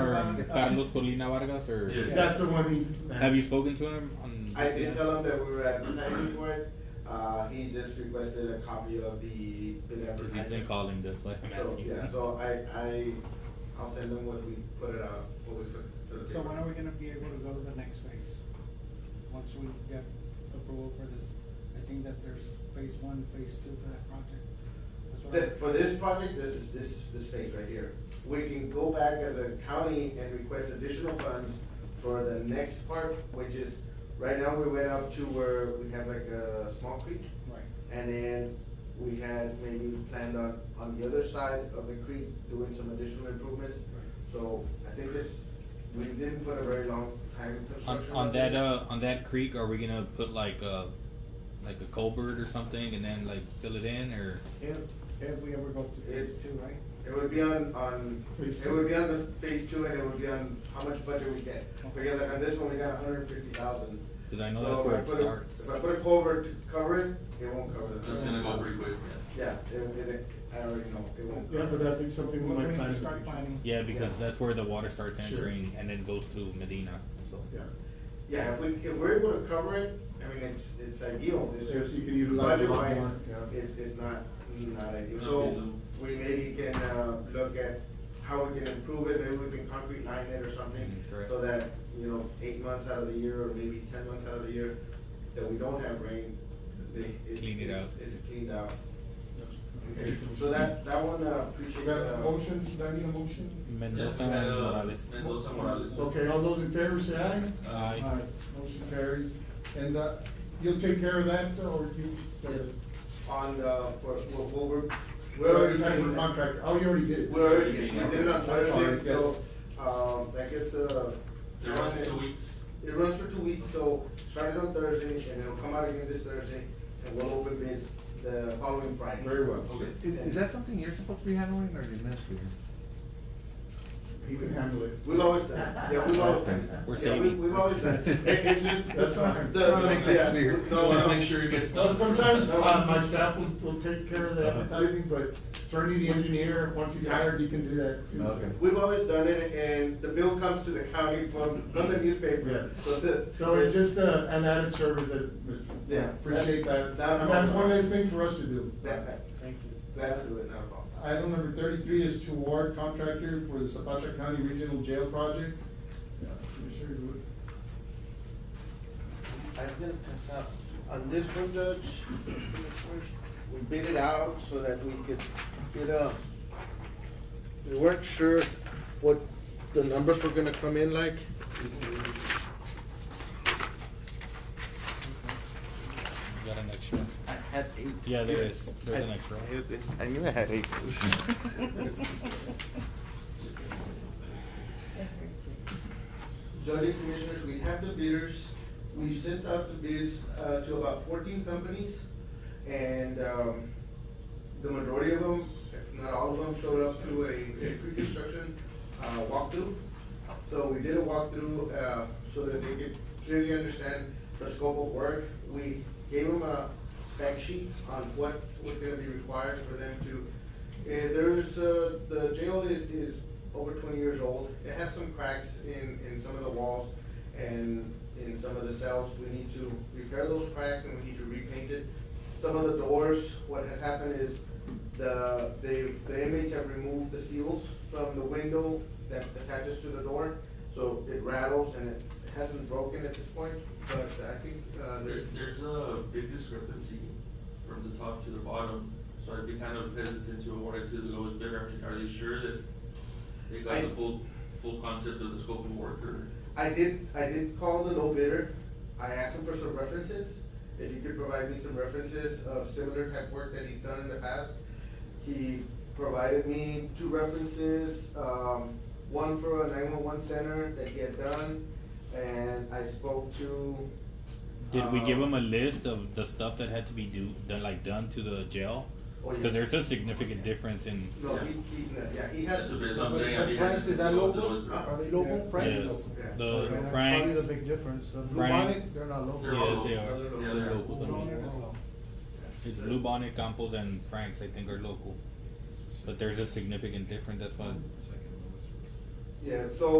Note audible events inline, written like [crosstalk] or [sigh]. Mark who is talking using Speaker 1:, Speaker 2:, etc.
Speaker 1: um, Carlos Colina Vargas, or
Speaker 2: Yeah.
Speaker 3: That's the one he's.
Speaker 1: have you spoken to him? On
Speaker 4: I did tell him that we were advertising for it. Uh, he just requested a copy of the bid
Speaker 1: Because he's been
Speaker 4: advertisement.
Speaker 1: calling, that's why I'm
Speaker 4: So,
Speaker 1: asking.
Speaker 4: yeah, so I, I, I'll send him what we put it out, what we put to
Speaker 5: So
Speaker 4: the paper.
Speaker 5: when are we gonna be able to go to the next phase? Once we get approval for this, I think that there's phase one, phase two for that project. That's what I-
Speaker 4: That, for this project, this is, this, this phase right here, we can go back as a county and request additional funds for the next part, which is, right now, we went up to where we have like a small creek,
Speaker 5: Right,
Speaker 4: and then we had maybe planned on, on the other side of the creek, doing some additional improvements.
Speaker 5: right.
Speaker 4: So I think this, we didn't put a very long time in
Speaker 1: On,
Speaker 4: construction.
Speaker 1: on
Speaker 4: this.
Speaker 1: that uh, on that creek, are we gonna put like a like a culvert or something, and then like fill it in, or
Speaker 5: If, if we ever go to phase
Speaker 4: It's-
Speaker 5: two, right?
Speaker 4: It would be on, on,
Speaker 3: Phase
Speaker 4: it
Speaker 3: two.
Speaker 4: would be on the phase two and it would be on how much budget we get. Because like on this one, we got hundred and fifty thousand.
Speaker 1: because I know that's where it starts.
Speaker 4: If I put a culvert to cover it, it won't cover the.
Speaker 2: That's gonna go pretty quick, yeah.
Speaker 4: Yeah, it, it, I already know, it won't.
Speaker 3: Yeah, but that'd be
Speaker 5: We're
Speaker 3: something we might
Speaker 5: going to
Speaker 3: plan. in the
Speaker 5: start
Speaker 3: future.
Speaker 5: planning.
Speaker 1: Yeah, because
Speaker 4: Yeah.
Speaker 1: that's where the water starts
Speaker 3: Sure.
Speaker 1: entering and then goes to Medina. So
Speaker 3: Yeah,
Speaker 4: Yeah, if we, if we're able to cover it, I mean, it's, it's ideal, it's
Speaker 3: If
Speaker 4: just.
Speaker 3: you can utilize it a lot
Speaker 4: budget-wise,
Speaker 3: more, yeah.
Speaker 4: It's, it's not, not ideal,
Speaker 2: Not
Speaker 4: so
Speaker 2: feasible.
Speaker 4: we maybe can, uh, look at how we can improve it, maybe we can concrete line it or something.
Speaker 1: Mhm, correct.
Speaker 4: So that, you know, eight months out of the year, or maybe ten months out of the year, that we don't have rain, they, it's,
Speaker 1: Clean it
Speaker 4: it's,
Speaker 1: out.
Speaker 4: it's cleaned out.
Speaker 3: Okay.
Speaker 4: Okay, so that, that one, uh,
Speaker 3: We
Speaker 4: appreciate,
Speaker 3: got a
Speaker 4: uh,
Speaker 3: motion, do I need a motion?
Speaker 1: Mendoza
Speaker 2: Yeah,
Speaker 1: and
Speaker 2: uh,
Speaker 1: Morales.
Speaker 2: Mendoza Morales.
Speaker 3: Okay, all those in favor say aye?
Speaker 1: Aye.
Speaker 6: Uh,
Speaker 3: Motion carries, and, uh, you'll take care of that, uh, or you?
Speaker 4: on, uh, for, we'll, we'll, we're.
Speaker 3: We already talked to the contractor, oh, you already did?
Speaker 4: We already did, we did it on
Speaker 3: I'm sorry,
Speaker 4: Thursday,
Speaker 3: yes.
Speaker 4: so, um, I guess, uh.
Speaker 2: It runs two weeks.
Speaker 4: It runs for two weeks, so started on Thursday, and it'll come out again this Thursday, and we'll open bids the following Friday.
Speaker 3: Very well.
Speaker 2: Okay.
Speaker 6: Is, is that something you're supposed to be handling or the administrator?
Speaker 3: He can handle it.
Speaker 4: We've always done, it. yeah, we've always done. it.
Speaker 1: We're
Speaker 4: Yeah,
Speaker 1: saving.
Speaker 4: we- We've always done,
Speaker 3: [laughs]
Speaker 4: it. It- it's just.
Speaker 3: That's fine.
Speaker 4: the-
Speaker 6: I wanna make that
Speaker 4: yeah,
Speaker 6: clear.
Speaker 2: I
Speaker 4: No,
Speaker 2: wanna
Speaker 4: no.
Speaker 2: make sure it gets
Speaker 3: Well,
Speaker 2: done.
Speaker 3: sometimes uh, my staff will, will take care of the advertising, but certainly the engineer, once he's hired, he can do that. too.
Speaker 6: Okay.
Speaker 4: We've always done it, and the bill comes to the county from, from the newspaper,
Speaker 3: Yes.
Speaker 4: so the.
Speaker 3: So it's just uh, an added service that,
Speaker 4: Yeah.
Speaker 3: appreciate that.
Speaker 4: That-
Speaker 3: And that's one nice thing for us to do.
Speaker 4: That, that,
Speaker 5: Thank you.
Speaker 4: glad to do it, not a problem.
Speaker 3: Item number thirty-three is to award contractor for the Zapata County Regional Jail Project. Yeah, Commissioner Wood.
Speaker 4: I'm gonna pass out. On this one, Judge, we bid it out so that we could get a, we weren't sure what the numbers were gonna come in like.
Speaker 1: You got an extra.
Speaker 4: I had eight.
Speaker 1: Yeah, there is. There's an extra.
Speaker 4: I- it's- I knew I had eight. Judge and Commissioners, we have the bidders, we've sent out the bids, uh, to about fourteen companies, and, um, the majority of them, if not all of them, showed up to a, a pre-construction, uh, walkthrough. So we did a walkthrough, uh, so that they could clearly understand the scope of work. We gave them a spec sheet on what was gonna be required for them to, and there's, uh, the jail is, is over twenty years old. It has some cracks in, in some of the walls and in some of the cells. We need to repair those cracks and we need to repaint it. Some of the doors, what has happened is the, they, the inmates have removed the seals from the window that attaches to the door. So it rattles and it hasn't broken at this point, but I think, uh,
Speaker 2: There,
Speaker 4: there,
Speaker 2: there's a big discrepancy from the top to the bottom, so I'd be kind of hesitant to award it to the lowest bidder. I mean, Are they sure that they got the
Speaker 4: I-
Speaker 2: full, full concept of the scope of work or?
Speaker 4: I did, I did call the low bidder. I asked him for some references, if he could provide me some references of similar type work that he's done in the past. He provided me two references, um, one for a nine-one-one center that he had done, and I spoke to.
Speaker 1: Did we give
Speaker 4: um,
Speaker 1: them a list of the stuff that had to be do done, like done to the jail?
Speaker 4: Oh, yes.
Speaker 1: Because there's a significant difference in.
Speaker 4: No, he, he, yeah, he had.
Speaker 2: That's the best I'm saying. I'd be hesitant to go with the lowest bidder.
Speaker 6: Are they local? Franks?
Speaker 1: Yes.
Speaker 4: Yeah.
Speaker 1: The
Speaker 6: Okay, that's probably
Speaker 1: Franks.
Speaker 6: the big difference. The
Speaker 1: Frank.
Speaker 6: Lubanic, they're not local.
Speaker 2: They're all
Speaker 1: Yes, they
Speaker 2: local.
Speaker 1: are.
Speaker 2: Yeah, they are.
Speaker 1: Local. It's Blue Bonnet, Campos, and Franks, I think, are local. But there's a significant difference. That's why
Speaker 4: Yeah, so